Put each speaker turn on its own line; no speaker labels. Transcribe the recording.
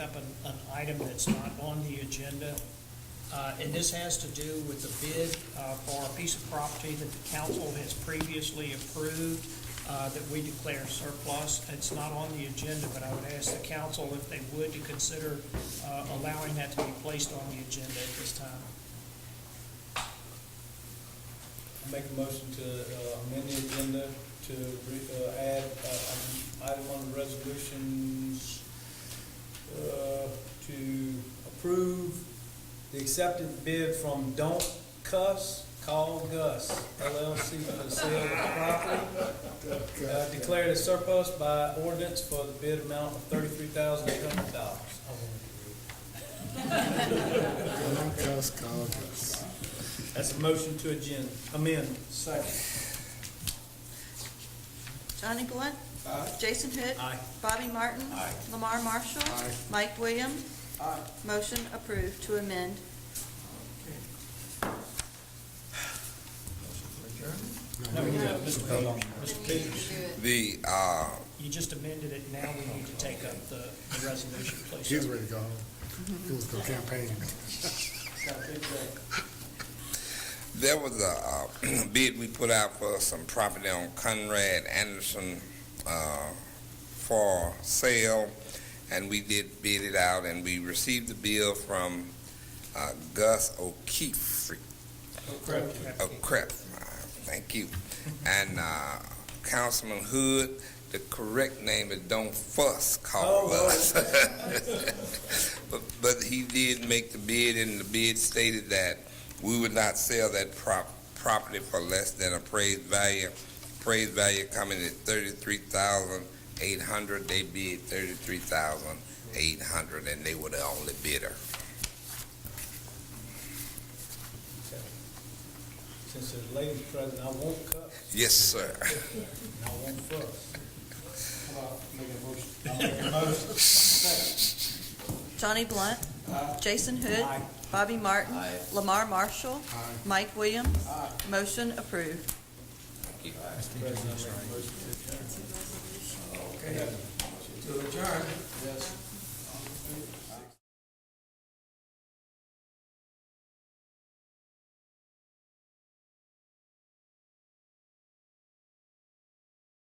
an item that's not on the agenda. Uh, And this has to do with the bid uh, for a piece of property that the council has previously approved uh, that we declare surplus. It's not on the agenda, but I would ask the council if they would to consider uh, allowing that to be placed on the agenda at this time.
Make a motion to uh, amend the agenda to re- uh, add uh, an item on the resolutions uh, to approve the accepted bid from Don't Cuss, Call Gus LLC for the sale of the property. Uh, Declared as surplus by ordinance for the bid amount of thirty-three thousand eight hundred dollars.
Caucus, caucus.
That's a motion to agenda, amend. Second.
Johnny Blunt. Jason Hood.
Aye.
Bobby Martin.
Aye.
Lamar Marshall.
Aye.
Mike Williams. Motion approved to amend.
No, we have Mr. Page. Mr. Page.
The, uh,
You just amended it, now we need to take up the the resolution, please.
He's ready to go home. He was going campaigning.
there was a uh, bid we put out for some property on Conrad Anderson uh, for sale, and we did bid it out, and we received the bill from uh, Gus O'Keefe of Crep. Oh, Uh, Thank you. And uh, Councilman Hood, the correct name is Don't Fuss Call
Oh,
Us. But, but he did make the bid, and the bid stated that we would not sell that prop, property for less than appraised value. Appraised value coming at thirty-three thousand eight hundred, they bid thirty-three thousand eight hundred, and they were the only bidder.
Since there's ladies present, I won't cut,
Yes, sir.
and I won't fuss.
Johnny Blunt. Jason Hood. Bobby Martin. Lamar Marshall. Mike Williams. Motion approved.
President, I make a motion to adjourn.
To adjourn,
Yes.